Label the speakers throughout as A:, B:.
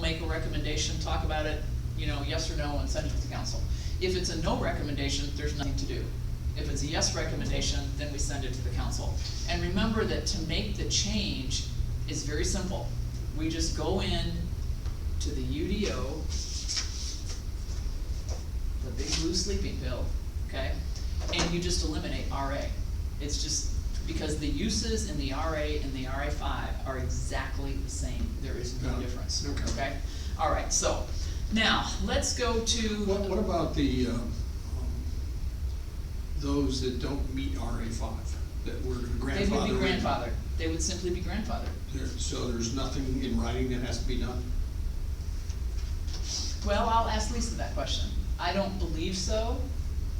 A: make a recommendation, talk about it, you know, yes or no, and send it to the council. If it's a no recommendation, there's nothing to do. If it's a yes recommendation, then we send it to the council. And remember that to make the change is very simple. We just go in to the UDO, the big blue sleeping pill, okay? And you just eliminate RA. It's just, because the uses in the RA and the RA five are exactly the same, there is no
B: Yeah,
A: difference,
B: okay.
A: okay? All right, so, now, let's go to.
B: What, what about the, um, um, those that don't meet RA five, that were
A: They would be
B: grandfathered? in?
A: grandfathered, they would simply be grandfathered.
B: There- So there's nothing in writing that has to be done?
A: Well, I'll ask Lisa that question. I don't believe so,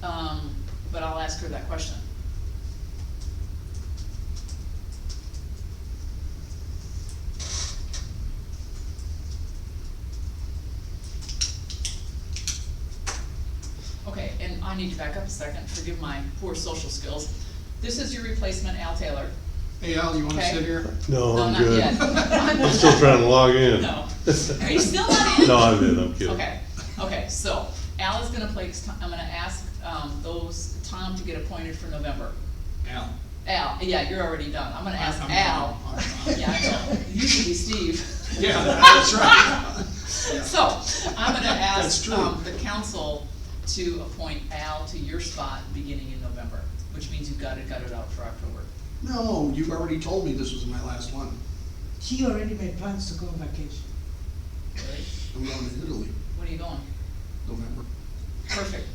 A: um, but I'll ask her that question. Okay, and I need to back up a second, forgive my poor social skills. This is your replacement, Al Taylor.
B: Hey Al, you wanna
A: Okay.
B: sit here?
C: No,
A: No,
C: Oh, I'm
A: not
C: good.
A: yet.
C: I'm still trying to log in.
A: No. Are you still not in?
C: No, I'm in, I'm kidding.
A: Okay, okay, so Al is gonna place, I'm gonna ask, um, those, Tom to get appointed for November.
B: Al.
A: Al, yeah, you're already done, I'm gonna ask
B: I'm- I'm-
A: Al.
B: I'm- I'm-
A: Yeah, I know, you should be Steve.
B: Yeah, that's right.
A: So, I'm gonna
B: That's
A: ask,
B: true.
A: um, the council to appoint Al to your spot beginning in November, which means you've gotta gut it out for October.
B: No, you've already told me this was my last one.
D: She already made plans to go on vacation.
A: Really?
B: I'm going to Italy,
A: When are you going?
B: November.
A: Perfect.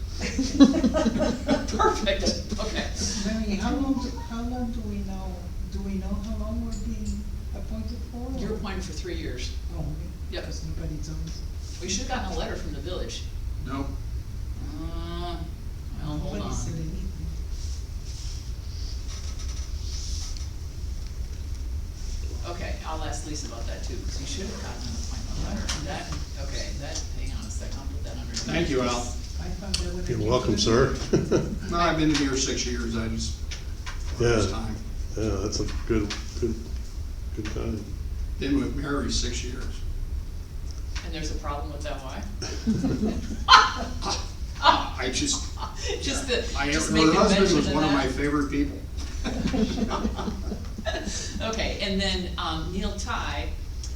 A: Perfect, okay.
D: Mary, how long, do- how long do we know, do we know how long we're being appointed for?
A: You're appointed for three years.
D: Oh, okay.
A: Yep.
D: Because nobody told us.
A: We should've gotten a letter from the village.
B: No,
A: Uh, well, hold
D: Nobody said
A: on.
D: anything.
A: Okay, I'll ask Lisa about that too, because you should have gotten an appointment letter. That, okay, that, hang on a second, I'll put that under.
B: Thank you, Al.
D: I found that when I
C: You're
D: came
C: welcome, sir.
D: to-
B: No, I've been here six years, I just,
C: Yeah.
B: first time.
C: Yeah, that's a good, good, good time.
B: Been with Mary six years.
A: And there's a problem with that, why?
B: I just,
A: Just the,
B: I,
A: just make
B: her
A: the
B: husband
A: mention
B: was one of my
A: that.
B: favorite people.
A: Okay, and then, um, Neil Ty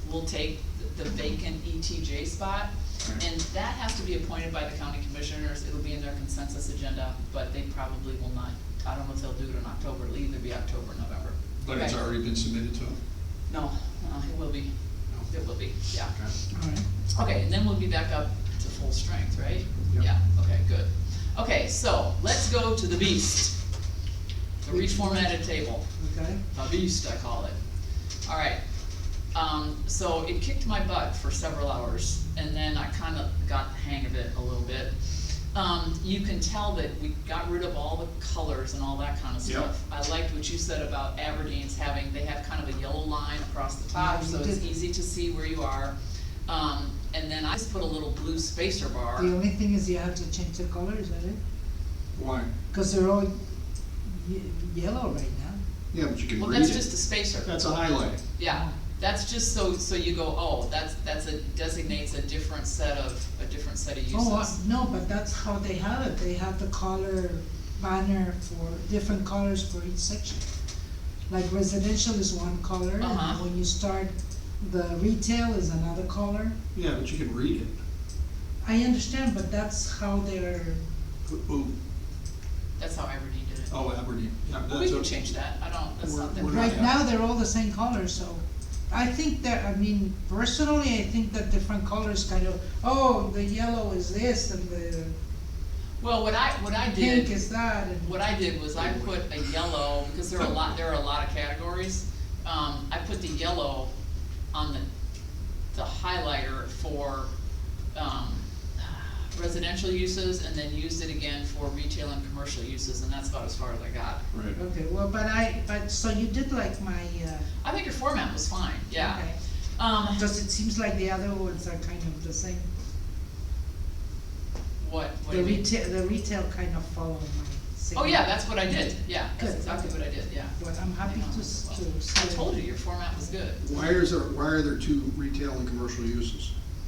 A: will take the the vacant ETJ spot.
B: Right.
A: And that has to be appointed by the county commissioners, it'll be in their consensus agenda, but they probably will not, I don't know if they'll do it in October, it'll either be October, or November.
B: But it's
A: Okay.
B: already been submitted to him.
A: No, no, it will be,
B: No.
A: it will be, yeah.
B: Okay.
D: All right.
A: Okay, and then we'll be back up to full strength, right?
B: Yep.
A: Yeah, okay, good. Okay, so let's go to the beast. The reformatted table,
D: Okay,
A: the beast I call it. All right, um, so it kicked my butt for several hours and then I kind of got the hang of it a little bit. Um, you can tell that we got rid of all the colors and all that kind of
B: Yep.
A: stuff. I liked what you said about Aberdeen's having, they have kind of a yellow line across the top,
D: Yeah,
A: so
D: you
A: it's
D: did.
A: easy to see where you are. Um, and then I just put a little blue spacer bar.
D: the only thing is you have to change the color, is that it?
B: Why?
D: Because they're all ye- yellow right now.
B: Yeah, but you can
A: Well,
B: read
A: that's just a
B: it.
A: spacer,
B: That's a highlight.
A: yeah, that's just so, so you go, oh, that's, that's a, designates a different set of, a different set of uses.
D: Oh, uh, no, but that's how they have it, they have the color banner for, different colors for each section. Like residential is one color,
A: Uh-huh.
D: and when you start, the retail is another color.
B: Yeah, but you can read it.
D: I understand, but that's how they're,
B: Ooh,
A: That's how Aberdeen did it.
B: oh, Aberdeen. Yeah,
A: Well, we
B: that's
A: can
B: a-
A: change that, I don't, that's
B: We're-
A: not that.
B: we're not-
D: right now, they're all the same color, so. I think that, I mean, personally, I think that different colors kind of, oh, the yellow is this, and the
A: Well, what I, what I did.
D: pink is that, and.
A: What I did was I put a yellow, because there are a lot, there are a lot of categories, um, I put the yellow on the, the highlighter for, um, residential uses, and then used it again for retail and commercial uses, and that's about as far as I got.
B: Right.
D: Okay, well, but I, but, so you did like my, uh.
A: I think your format was fine, yeah.
D: okay.
A: Um,
D: Because it seems like the other ones are kind of the same.
A: what, what do
D: The
A: you mean?
D: retail, the retail kind of follow my same.
A: Oh, yeah, that's what I did, yeah, that's
D: Good.
A: exactly what I did, yeah.
D: But I'm happy to, s- to
A: I
D: see.
A: told you, your format was good.
B: Why is there, why are there two retail and commercial uses?